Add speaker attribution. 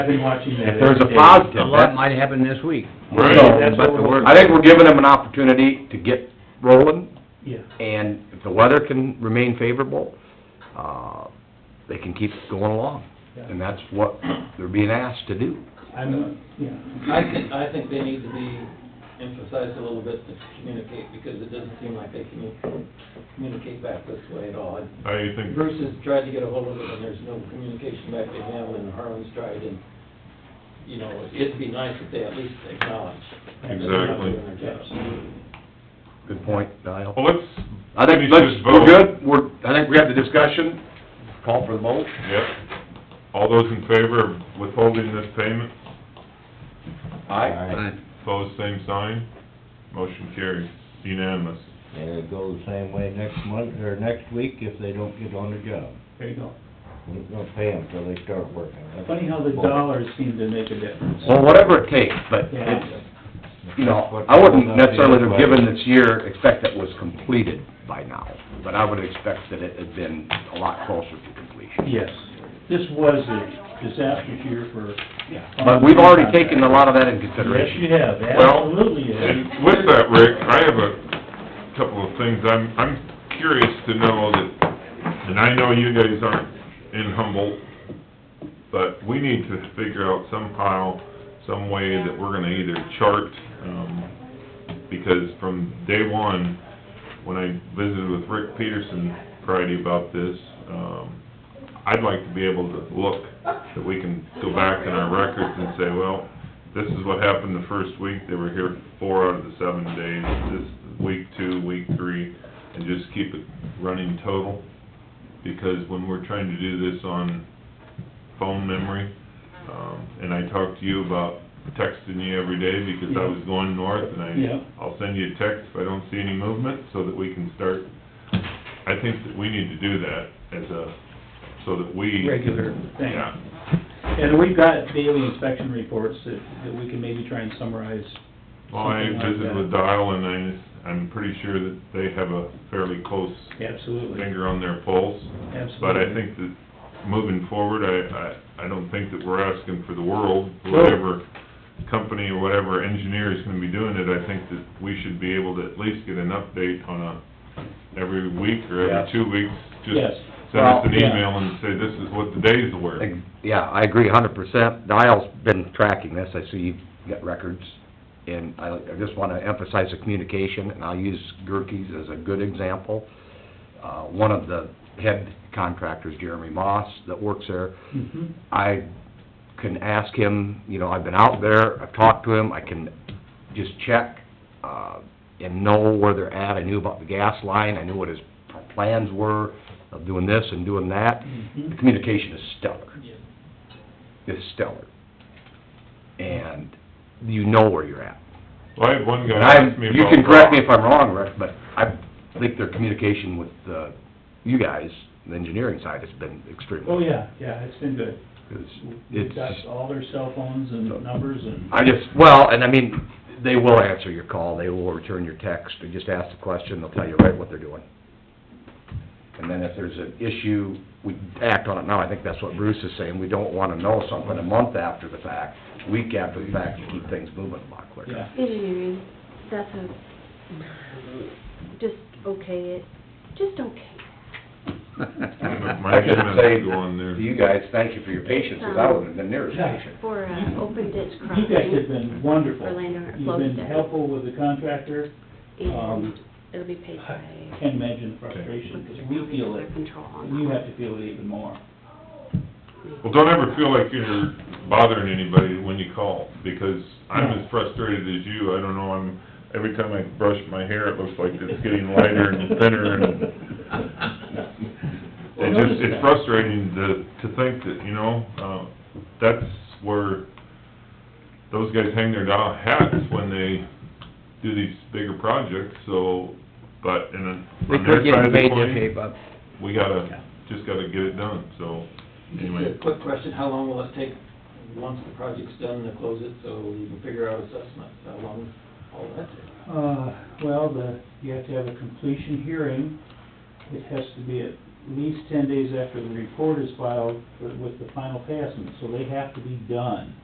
Speaker 1: I've been watching that.
Speaker 2: If there's a positive,
Speaker 3: A lot
Speaker 2: that,
Speaker 3: might happen this week.
Speaker 4: Right.
Speaker 1: So that's
Speaker 2: but
Speaker 1: what
Speaker 2: the
Speaker 1: we're,
Speaker 2: word- I think we're given them an opportunity to get rolling,
Speaker 1: yeah,
Speaker 2: and if the weather can remain favorable, uh, they can keep going along.
Speaker 1: yeah.
Speaker 2: And that's what they're being asked to do.
Speaker 1: I'm, yeah,
Speaker 5: I think, I think they need to be emphasized a little bit to communicate, because it doesn't seem like they commu- communicate back this way at all.
Speaker 4: I think,
Speaker 5: Bruce has tried to get a hold of it, and there's no communication back to him, and Harlan's tried, and, you know, it'd be nice if they at least acknowledge. that they're not doing
Speaker 4: Exactly.
Speaker 5: their jobs.
Speaker 2: Good point, Dial.
Speaker 4: well, let's
Speaker 2: I think,
Speaker 4: finish this
Speaker 2: let's,
Speaker 4: vote.
Speaker 2: we're good, we're, I think we have the discussion, call for the vote.
Speaker 4: Yep. All those in favor of withholding this payment,
Speaker 2: Aye.
Speaker 4: pose same sign. Motion carries unanimous.
Speaker 6: And it goes the same way next month, or next week if they don't get on the job.
Speaker 1: there you go.
Speaker 6: We're not gonna pay them till they start working.
Speaker 1: Funny how the dollars seem to make a difference.
Speaker 2: Well, whatever it takes, but
Speaker 1: Yeah.
Speaker 2: it's, you know, I wouldn't necessarily have given this year, expect that was completed by now, but I would expect that it had been a lot closer to completion.
Speaker 1: Yes, this was a disastrous year for.
Speaker 2: But we've already taken a lot of that into consideration.
Speaker 1: Yes, you have,
Speaker 4: Well,
Speaker 1: absolutely you have.
Speaker 4: And with that, Rick, I have a couple of things, I'm, I'm curious to know that, and I know you guys aren't in Humboldt, but we need to figure out somehow, some way that we're gonna either chart, um, because from day one, when I visited with Rick Peterson Friday about this, um, I'd like to be able to look, that we can go back in our records and say, well, this is what happened the first week, they were here four out of the seven days, this, week two, week three, and just keep it running total, because when we're trying to do this on phone memory, um, and I talked to you about texting you every day, because I was going north, and
Speaker 1: Yeah.
Speaker 4: I, I'll send you a text if I don't see any movement, so that we can start, I think that we need to do that as a, so that we.
Speaker 1: Regular thing.
Speaker 4: Yeah,
Speaker 1: And we've got daily inspection reports that, that we can maybe try and summarize.
Speaker 4: Well, I
Speaker 1: Something like
Speaker 4: visited
Speaker 1: that.
Speaker 4: with Dial and I, I'm pretty sure that they have a fairly close
Speaker 1: Absolutely,
Speaker 4: finger on their pulse.
Speaker 1: absolutely.
Speaker 4: But I think that moving forward, I, I, I don't think that we're asking for the world,
Speaker 1: No.
Speaker 4: whatever company or whatever engineer is gonna be doing it, I think that we should be able to at least get an update on a, every week or
Speaker 2: Yeah.
Speaker 4: every two weeks. Just
Speaker 1: Yes.
Speaker 4: send us an
Speaker 1: Well, yeah.
Speaker 4: email and say, this is what the days were.
Speaker 2: Ex- Yeah, I agree a hundred percent. Dial's been tracking this, I see you've got records, and I, I just wanna emphasize the communication, and I'll use Gerke's as a good example. Uh, one of the head contractors, Jeremy Moss, that works there,
Speaker 1: Mhm.
Speaker 2: I can ask him, you know, I've been out there, I've talked to him, I can just check, uh, and know where they're at. I knew about the gas line, I knew what his plans were of doing this and doing that. The
Speaker 1: Mhm.
Speaker 2: communication is stellar
Speaker 5: Yeah.
Speaker 2: is stellar. And you know where you're at.
Speaker 4: Well, I had one guy
Speaker 2: And I,
Speaker 4: ask me about.
Speaker 2: you can correct me if I'm wrong, Rick, but I think their communication with, uh, you guys, the engineering side, has been
Speaker 1: Oh,
Speaker 2: extremely.
Speaker 1: yeah, yeah, it's been good. We've
Speaker 2: It's,
Speaker 1: got all their cell phones and numbers and,
Speaker 2: I just, well, and I mean, they will answer your call, they will return your text, you just ask the question, they'll tell you right what they're doing. And then if there's an issue, we act on it now, I think that's what Bruce is saying, we don't wanna know something a month after the fact, week after the fact, to keep things moving a lot quicker.
Speaker 1: yeah.
Speaker 7: Engineering, that's a, just okay it, just okay.
Speaker 4: My
Speaker 2: I should
Speaker 4: comments
Speaker 2: say
Speaker 4: go on there.
Speaker 2: to you guys, thank you for your patience, because I wouldn't have been near as patient.
Speaker 7: For, uh, open ditch
Speaker 1: You guys have
Speaker 7: crossing,
Speaker 1: been wonderful.
Speaker 7: Orlando or
Speaker 1: You've been
Speaker 7: Flowstaff.
Speaker 1: helpful with the contractor.
Speaker 7: and
Speaker 1: um,
Speaker 7: it'll be paid by.
Speaker 1: I Can't imagine the frustration, because we feel it,
Speaker 7: Under control on
Speaker 1: you
Speaker 7: that.
Speaker 1: have to feel it even more.
Speaker 4: Well, don't ever feel like you're bothering anybody when you call, because I'm
Speaker 1: No.
Speaker 4: as frustrated as you, I don't know, I'm, every time I brush my hair, it looks like it's getting lighter and thinner, and
Speaker 1: Well,
Speaker 4: it's just,
Speaker 1: notice
Speaker 4: it's
Speaker 1: that.
Speaker 4: frustrating to, to think that, you know, uh, that's where those guys hang their doll hats when they do these bigger projects, so, but, in a
Speaker 3: They
Speaker 4: on their
Speaker 3: could
Speaker 4: side
Speaker 3: get
Speaker 4: of the
Speaker 3: paid to
Speaker 4: coin,
Speaker 3: shape up.
Speaker 4: we gotta, just gotta get it done, so, anyway.
Speaker 5: Just a quick question, how long will it take, once the project's done, to close it, so you can figure out assessment, how long all that takes?
Speaker 1: Uh, well, the, you have to have a completion hearing. It has to be at least ten days after the report is filed for- with the final passment, so they have to be done.